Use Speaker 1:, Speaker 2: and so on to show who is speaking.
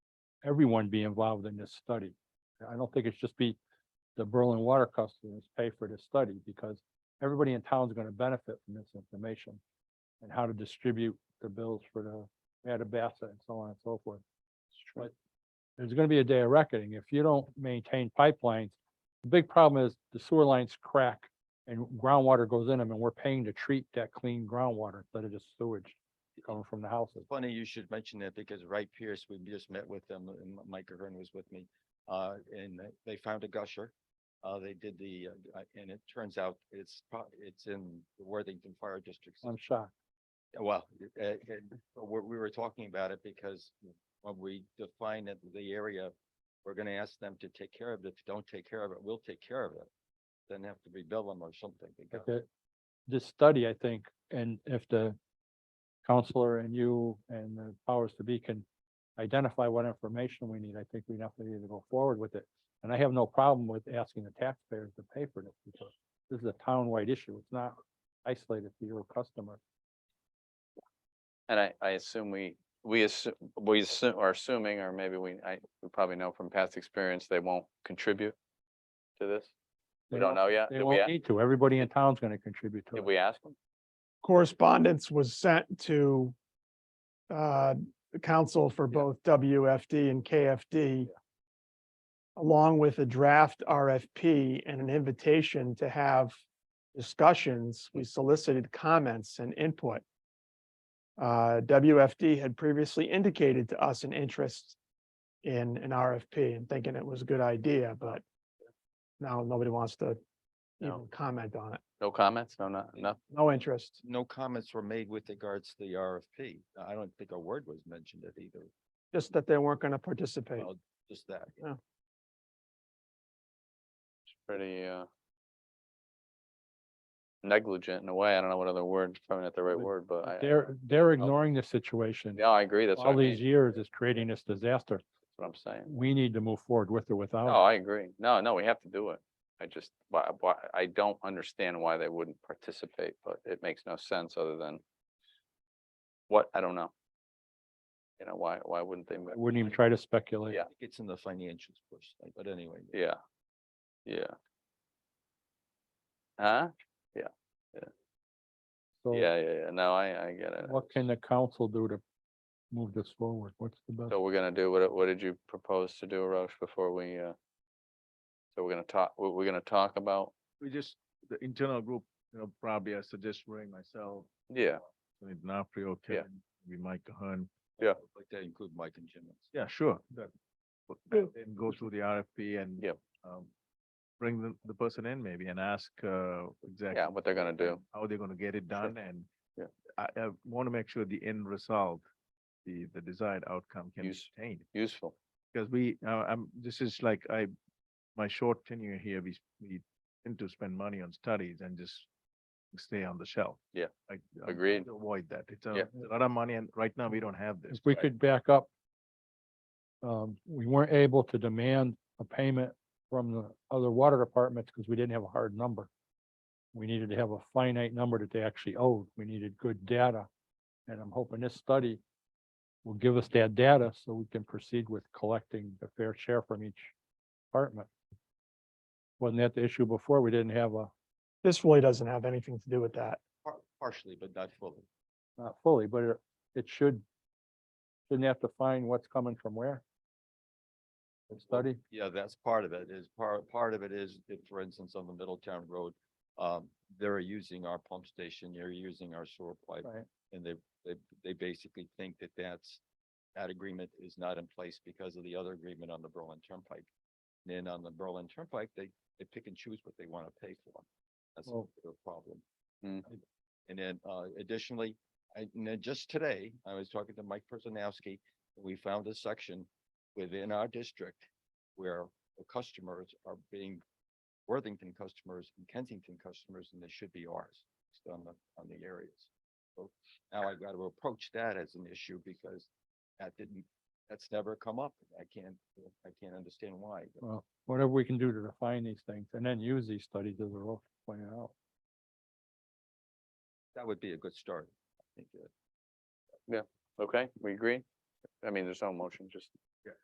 Speaker 1: everyone be involved in this study. I don't think it should just be the Berlin water customers pay for this study because everybody in town is going to benefit from this information and how to distribute the bills for the Athabasca and so on and so forth. But there's going to be a day of reckoning. If you don't maintain pipelines, the big problem is the sewer lines crack and groundwater goes in them and we're paying to treat that clean groundwater instead of just sewage coming from the houses.
Speaker 2: Funny you should mention that because Wright Pierce, we just met with them and M- Mike Ahern was with me. Uh, and they- they found a gusher. Uh, they did the, uh, uh, and it turns out it's, pro- it's in the Worthington Fire District.
Speaker 1: I'm shocked.
Speaker 2: Well, it- it- it- but we, we were talking about it because when we define it, the area, we're gonna ask them to take care of it. If you don't take care of it, we'll take care of it. Then have to rebuild them or something.
Speaker 1: Like
Speaker 2: because-
Speaker 1: that- This study, I think, and if the counselor and you and the powers to be can identify what information we need, I think we definitely need to go forward with it. And I have no problem with asking the taxpayers to pay for this because this is a town-wide issue. It's not isolated to your customer.
Speaker 3: And I, I assume we, we assume, we assu- are assuming, or maybe we, I, we probably know from past experience, they won't contribute to this. We
Speaker 1: They
Speaker 3: don't know yet.
Speaker 1: They
Speaker 3: Did we,
Speaker 1: won't
Speaker 3: a-
Speaker 1: need to. Everybody in town's gonna contribute to
Speaker 3: did
Speaker 1: it.
Speaker 3: we ask them?
Speaker 4: correspondence was sent to uh, the council for
Speaker 1: Yeah.
Speaker 4: both WFD and KFD, along with a draft RFP and an invitation to have discussions. We solicited comments and input. Uh, WFD had previously indicated to us an interest in an RFP and thinking it was a good idea, but now nobody wants to
Speaker 3: No.
Speaker 4: even comment on it.
Speaker 3: No comments? No, no, no?
Speaker 4: No interest.
Speaker 2: No comments were made with regards to the RFP. I don't think a word was mentioned it either.
Speaker 4: just that they weren't going to participate.
Speaker 2: Well, Just that.
Speaker 3: It's Pretty, uh, negligent in a way. I don't know what other word, probably not the right
Speaker 1: But
Speaker 3: word, but I,
Speaker 1: They're, they're ignoring the situation.
Speaker 3: no, I agree. That's what I
Speaker 1: All
Speaker 3: mean.
Speaker 1: these
Speaker 3: That's
Speaker 1: years is creating this disaster.
Speaker 3: what I'm saying.
Speaker 1: We need to move forward with or without.
Speaker 3: No,
Speaker 1: it.
Speaker 3: I agree. No, no, we have to do it. I just, why, why, I don't understand why they wouldn't participate, but it makes no sense other than what, I don't know. You know, why, why wouldn't they?
Speaker 1: I Wouldn't even try to speculate.
Speaker 3: Yeah.
Speaker 2: I think It's in the financials push, but anyway.
Speaker 3: Yeah, yeah. Huh?
Speaker 1: So
Speaker 3: Yeah, yeah, yeah. No, I, I get it.
Speaker 1: what can the council do to move this forward? What's the best?
Speaker 3: So we're gonna do, what, what did you propose to do, Roche, before we, uh? So we're gonna talk, we're, we're gonna talk about,
Speaker 5: we just, the internal group, you know, probably I suggest Ray, myself,
Speaker 3: yeah,
Speaker 5: Tony DiNapoli, Kevin, maybe Mike Ahern.
Speaker 3: Yeah.
Speaker 2: Like that include Mike and Jim.
Speaker 5: Yeah, sure. That, but
Speaker 4: Yeah.
Speaker 5: that- then go through the RFP and
Speaker 3: Yep.
Speaker 5: um, bring the, the person in maybe and ask, uh, exactly.
Speaker 3: yeah, what they're gonna do.
Speaker 5: How they're gonna get it done and
Speaker 3: Yeah.
Speaker 5: I, I want to make sure the end result, the, the desired outcome can be
Speaker 3: Use-
Speaker 5: attained.
Speaker 3: Useful.
Speaker 5: Because we, uh, I'm, this is like I, my short tenure here, we, s- we tend to spend money on studies and just stay on the shelf.
Speaker 3: Yeah.
Speaker 5: I- I- I
Speaker 3: Agreed.
Speaker 5: Avoid that. It's a
Speaker 3: Yeah.
Speaker 5: it's a lot of money and right now we don't have this.
Speaker 1: If we
Speaker 5: right?
Speaker 1: could back up. Um, we weren't able to demand a payment from the other water departments because we didn't have a hard number. We needed to have a finite number that they actually owed. We needed good data. And I'm hoping this study will give us that data so we can proceed with collecting a fair share from each department. Wasn't that the issue before? We didn't have a,
Speaker 4: This really doesn't have anything to do with that.
Speaker 2: Par- Partially, but not fully.
Speaker 1: not fully, but it, it should, shouldn't have to find what's coming from where. The study.
Speaker 2: Yeah, that's part of it is part, part of it is if, for instance, on the Middletown Road, um, they're using our pump station, they're using our sewer pipe.
Speaker 1: Right.
Speaker 2: And they, they, they basically think that that's, that agreement is not in place because of the other agreement on the Berlin Turnpike. Then on the Berlin Turnpike, they, they pick and choose what they want to pay for. That's
Speaker 1: Well-
Speaker 2: their problem.
Speaker 3: Mm.
Speaker 2: And then, uh, additionally, I, and then just today, I was talking to Mike Personnowski, and we found a section within our district where the customers are being Worthington customers and Kensington customers, and they should be ours, just on the, on the areas. So now I've got to approach that as an issue because that didn't, that's never come up. I can't, I can't understand why. but-
Speaker 1: Well, whatever we can do to define these things and then use these studies as a role pointed out.
Speaker 2: That would be a good start. I think, uh,
Speaker 3: Okay, we agree? I mean, there's no motion, just